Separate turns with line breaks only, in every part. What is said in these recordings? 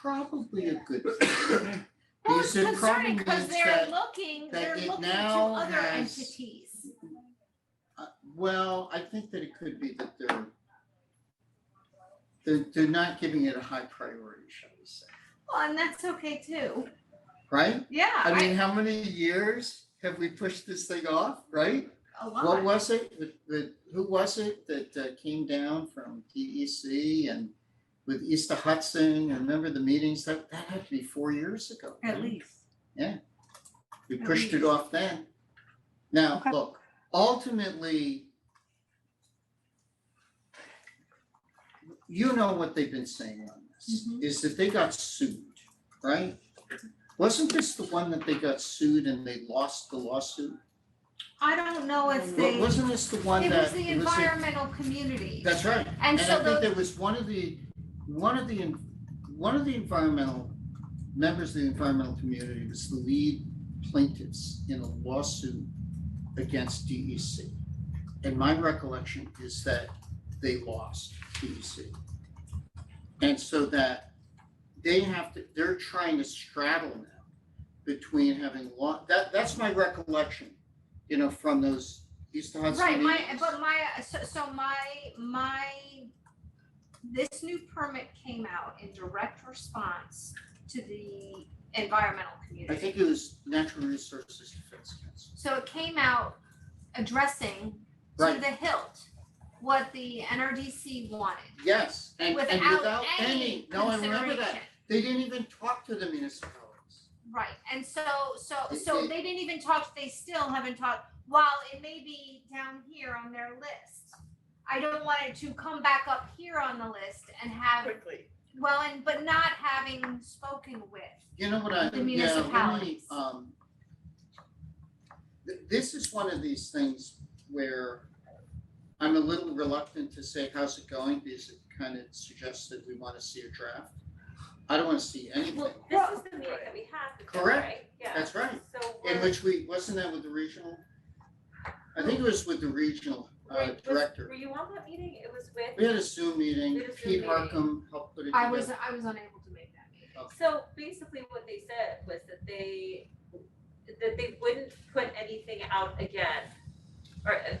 probably a good thing.
Well,
Because
it's
it
concerning
probably
because
means
they're
that-
looking,
that
they're
it
looking to
now
other
has-
entities.
Uh, Well, I think that it could be that they're they're, they're not giving it a high priority, shall we say,
Well, and that's okay too.
right?
Yeah,
I
I,
mean, how many years have we pushed this thing off, right?
a
What
lot.
was it, that- that- who was it that uh, came down from DEC and with Easter Hudson, and remember the meetings, that, that had to be four years ago.
At
right?
least.
We
at
pushed it
least.
off then. Now,
Okay.
look, ultimately, you know what they've been saying on this,
Mhm.
is that they got sued, right? Wasn't this the one that they got sued and they lost the lawsuit?
I don't know if
Wa-
they, it
Wasn't this the one that?
was the
it was the-
environmental community.
That's right.
And
And I
so
think
the,
there was one of the, one of the, one of the environmental, members of the environmental community was the lead plaintiffs in a lawsuit against DEC. And my recollection is that they lost DEC. And so that they have to, they're trying to straddle now between having law, that, that's my recollection, you know, from those East Hudson
right, my,
meetings.
but my, so, so my, my, this new permit came out in direct response to the environmental
I
community.
think it was Natural Resources Defense Council.
So it came out addressing to
Right.
the hilt what the NRDC wanted.
Yes, and and
without any
no, I remember
consideration.
that. They didn't even talk to the municipalities.
Right, and so, so,
They-
so
they-
they didn't even talk, they still haven't talked, while it may be down here on their list. I don't want it to come back up here on the list and have,
quickly.
well, and, but not having spoken with.
You know what I, yeah,
The
let me,
municipalities.
um. th- This is one of these things where I'm a little reluctant to say, how's it going? Because it kind of suggests that we want to see a draft. I don't want to see anything,
This is the meeting that we had. with them,
Correct.
right? Yeah.
that's right,
So
in
we're,
which we, wasn't that with the regional? I think it was with the regional uh
wait, was-
director.
were you on that meeting? It was
We
with,
had a Zoom meeting,
We had a Zoom
Pete
meeting.
Harkam helped put it together.
I was, I was unable to make that meeting.
so basically what they said was that they, that they wouldn't put anything out again. Or uh,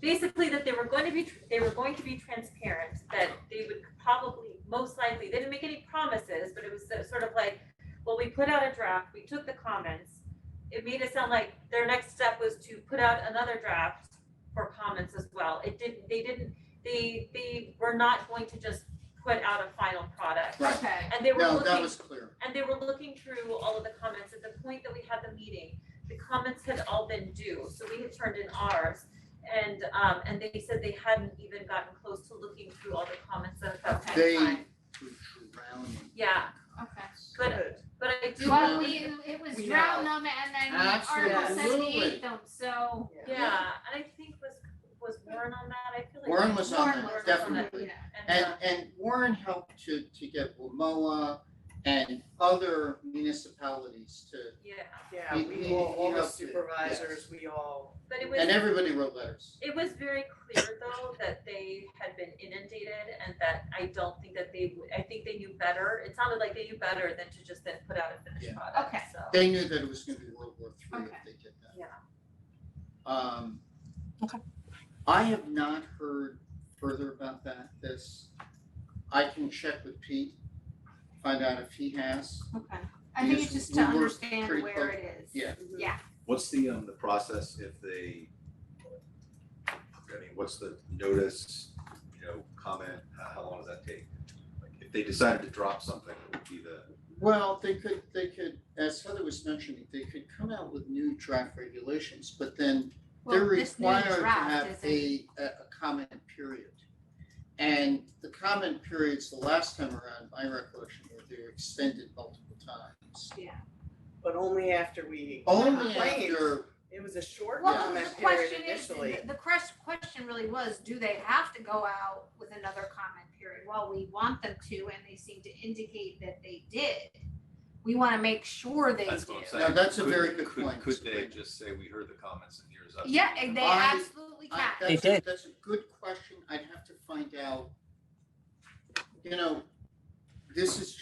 basically that they were going to be, tr- they were going to be transparent, that they would probably, most likely, they didn't make any promises, but it was so- sort of like, well, we put out a draft, we took the comments. It made it sound like their next step was to put out another draft for comments as well. It didn't, they didn't, they, they were not going to just put out a final product.
Right.
Okay,
And they were
No, that
looking,
was clear.
and they were looking through all of the comments, at the point that we had the meeting, the comments had all been due, so we had turned in ours. And um and they said they hadn't even gotten close to looking through all the comments that that
Okay.
They were
fine.
drowning.
yeah,
okay.
but but I do.
Well, we, it was
We
drown them and then Article
Absolutely.
seventy eight them, so.
Yeah, and I think was was Warren on that, I feel like.
Warren was on
Warren
that,
was on
definitely.
yeah.
And,
And uh,
and Warren helped to, to get Wamoa and other municipalities to,
yeah,
Yeah,
He-
we
he-
all, all
he
the
helped it,
supervisors, we all,
but it was.
and everybody wrote letters.
It was very clear though that they had been inundated and that I don't think that they, would- I think they knew better. It sounded like they knew better than to just then put out a
Yeah.
finished product,
Okay.
so.
They knew that it was gonna be World War Three if
Okay.
they did that.
Yeah.
Um.
Okay.
I have not heard further about that, this, I can check with Pete, find out if he has.
Okay, I think it's
Because
just to
we were
understand
pretty
where it is.
Yeah.
What's the, um, the process if they, I mean, what's the notice, you know, comment, how, how long does that take? Like, if they decided to drop something, it would be the,
Well, they could, they could, as Heather was mentioning, they could come out with new draft regulations, but then they're
Well, this new
required to
draft
have
isn't-
a, a, a comment period. And the comment periods, the last time around, my recollection, were they were extended multiple times.
but only after we
Only
complained.
after,
It was a short
Well, the
comment period
question is,
initially.
the crest question really was, do they have to go out with another comment period? Well, we want them to, and they seem to indicate that they did. We wanna make sure they
that's what I'm
do.
saying.
Now, that's a
Could-
very good
could-
point.
Could they just say, we heard the comments and here's us?
Yeah, and they
I-
absolutely
I,
can.
uh, that's,
They
a-
did.
that's a good question, I'd have to find out. You know, this is